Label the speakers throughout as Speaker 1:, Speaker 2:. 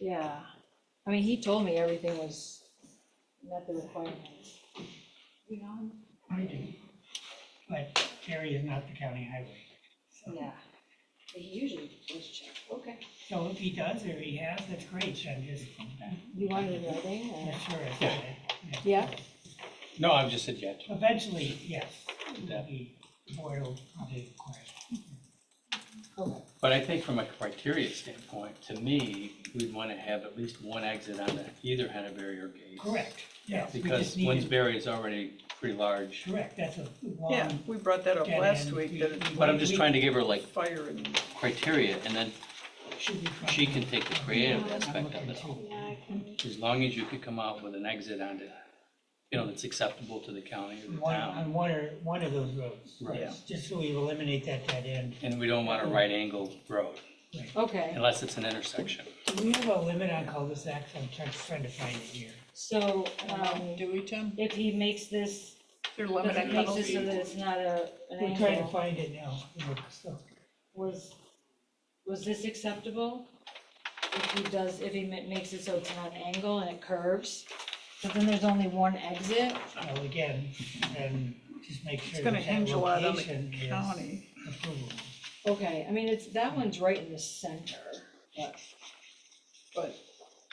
Speaker 1: Yeah, I mean, he told me everything was met the requirements. You know?
Speaker 2: I do. But Gary is not the county highway. so-
Speaker 1: Yeah, he usually does check, okay.
Speaker 2: So if he does or he has, that's great, so I'm just,
Speaker 1: You want it in writing, or-
Speaker 2: not sure. if
Speaker 3: Yeah.
Speaker 2: I-
Speaker 1: yeah?
Speaker 3: No, I'm just said yet.
Speaker 2: Eventually, yes, that'd be, board will probably require.
Speaker 1: Okay.
Speaker 3: But I think from a criteria standpoint, to me, we'd want to have at least one exit on the- either Henneberry or Gates.
Speaker 2: Correct, yes. we
Speaker 3: Because
Speaker 2: just need to-
Speaker 3: Winsberry is already pretty large,
Speaker 2: Correct, that's a
Speaker 4: Yeah,
Speaker 2: long,
Speaker 4: we brought that up
Speaker 2: dead
Speaker 4: last
Speaker 2: end.
Speaker 4: week,
Speaker 2: We-
Speaker 4: that it's
Speaker 3: but I'm just trying to give her like
Speaker 4: fire and,
Speaker 3: criteria, and then
Speaker 2: should be. front.
Speaker 3: she can take the creative
Speaker 2: I'm
Speaker 3: aspect of
Speaker 2: looking
Speaker 3: it all.
Speaker 2: too.
Speaker 3: As long as you could come out with an exit onto, you know, that's acceptable to the county or the
Speaker 2: One,
Speaker 3: town.
Speaker 2: on one or, one of those roads.
Speaker 3: Um, Right.
Speaker 2: yes, Just so we eliminate that dead end.
Speaker 3: And we don't want a right angle road,
Speaker 1: Okay,
Speaker 3: unless it's an intersection.
Speaker 2: Do we have a limit on cul-de-sacs? I'm trying, trying to find it here.
Speaker 1: so, um,
Speaker 4: do we, Tim?
Speaker 1: if he makes this,
Speaker 4: Their
Speaker 1: if
Speaker 4: limit
Speaker 1: he
Speaker 4: on
Speaker 1: makes this so that
Speaker 4: penalty.
Speaker 1: it's not a, an
Speaker 2: We're trying to
Speaker 1: angle,
Speaker 2: find it now, look, so,
Speaker 1: was, was this acceptable? If he does, if he ma- makes it so it's not an angle and it curves, but then there's only one exit?
Speaker 2: well, again, and just make
Speaker 4: It's
Speaker 2: sure
Speaker 4: gonna
Speaker 2: that that
Speaker 4: hinge a lot on the
Speaker 2: location is
Speaker 4: county.
Speaker 2: approvable.
Speaker 1: Okay, I mean, it's, that one's right in the center, but
Speaker 4: But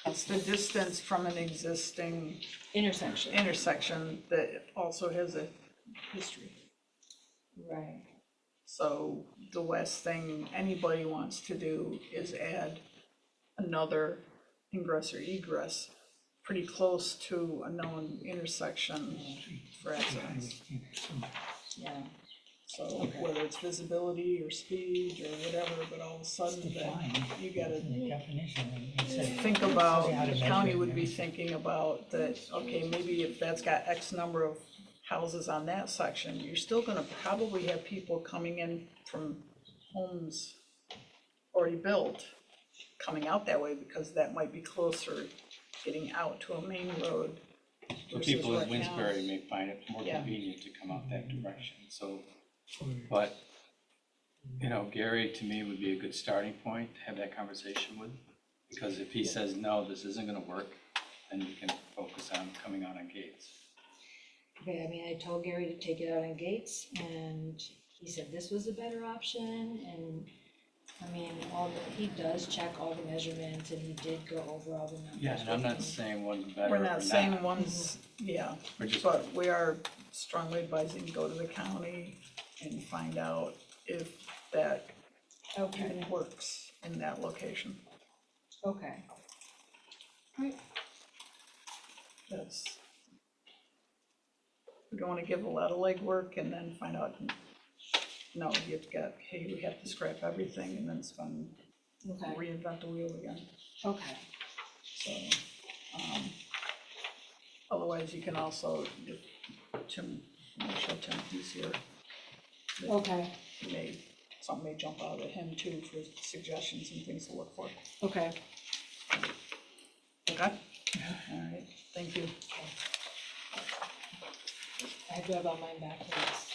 Speaker 4: it's the distance from an existing
Speaker 1: intersection,
Speaker 4: intersection that also has a history.
Speaker 1: right,
Speaker 4: So the last thing anybody wants to do is add another ingress or egress pretty close to a known intersection for accidents.
Speaker 1: yeah.
Speaker 4: So whether it's visibility or speed or whatever, but all of a sudden then you gotta
Speaker 2: The definition, it says-
Speaker 4: think about,
Speaker 2: How to
Speaker 4: the
Speaker 2: measure
Speaker 4: county
Speaker 2: it,
Speaker 4: would
Speaker 2: yeah.
Speaker 4: be thinking about that, okay, maybe if that's got X number of houses on that section, you're still gonna probably have people coming in from homes already built, coming out that way because that might be closer getting out to a main road.
Speaker 3: The
Speaker 4: versus
Speaker 3: people in
Speaker 4: right now.
Speaker 3: Winsberry may find it more
Speaker 4: Yeah.
Speaker 3: convenient to come out that direction, so, but, you know, Gary, to me, would be a good starting point to have that conversation with, because if he says, no, this isn't gonna work, then you can focus on coming out on gates.
Speaker 1: Okay, I mean, I told Gary to take it out on Gates, and he said this was a better option, and, I mean, all the, he does check all the measurements, and he did go over all the numbers.
Speaker 3: Yeah, and I'm not
Speaker 1: with me.
Speaker 3: saying one's better or
Speaker 4: We're
Speaker 3: not.
Speaker 4: not saying one's, yeah,
Speaker 3: We're just-
Speaker 4: but we are strongly advising go to the county and find out if that
Speaker 1: Okay,
Speaker 4: even works in that location.
Speaker 1: okay,
Speaker 4: That's. We don't wanna give a lot of legwork and then find out, no, you've got, hey, we have to scrap everything and then spend,
Speaker 1: okay,
Speaker 4: reinvent the wheel again,
Speaker 1: okay,
Speaker 4: so. um, Otherwise, you can also, if Tim, make sure Tim is here,
Speaker 1: okay,
Speaker 4: he may, something may jump out at him too for suggestions and things to look for.
Speaker 1: okay.
Speaker 4: Okay. All right, thank you.
Speaker 1: I have to have all mine back, please.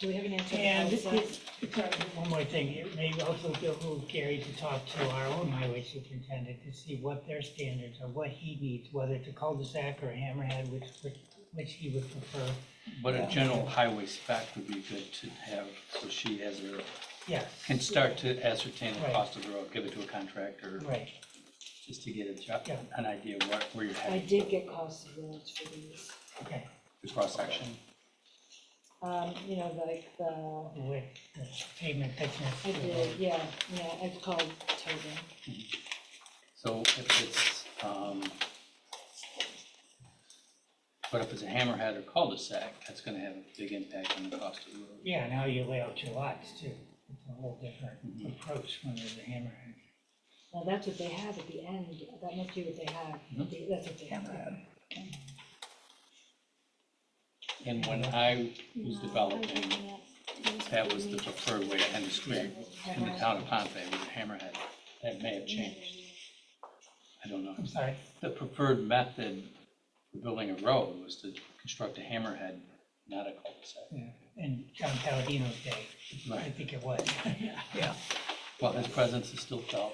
Speaker 1: Do we have an answer? to
Speaker 2: And
Speaker 1: Elsa?
Speaker 2: it's- it's, uh, one more thing, it may also behoove Gary to talk to our own highway superintendent to see what their standards are, what he needs, whether it's a cul-de-sac or a hammerhead, which, which- which he would prefer.
Speaker 3: But a general highway spec would be good to have, so she has her,
Speaker 2: Yes,
Speaker 3: can start to ascertain the
Speaker 2: Right.
Speaker 3: cost of the road, give it to a contractor,
Speaker 2: right,
Speaker 3: just to get a job,
Speaker 2: Yeah.
Speaker 3: an idea what, where you're
Speaker 1: I
Speaker 3: heading.
Speaker 1: did get cost of roads for these,
Speaker 2: okay,
Speaker 3: The cross section.
Speaker 1: um, you know, like the
Speaker 2: with the pavement thickness.
Speaker 1: I did, yeah, yeah, I've called Tobin.
Speaker 3: So if it's, um, but if it's a hammerhead or cul-de-sac, that's gonna have a big impact on the cost of the road.
Speaker 2: Yeah, now you lay out your lots too, it's a whole different approach when there's a hammerhead.
Speaker 1: Now, that's what they have at the end, that must be what they have, They- that's what they have.
Speaker 3: And when I was developing, that was the preferred way to end the street in the town of Pompey was a hammerhead. That may have changed. I don't know.
Speaker 2: I'm sorry,
Speaker 3: The preferred method for building a road was to construct a hammerhead, not a cul-de-sac.
Speaker 2: yeah, in John Palladino's day, I think it was.
Speaker 4: Yeah.
Speaker 3: Well, his presence is still felt.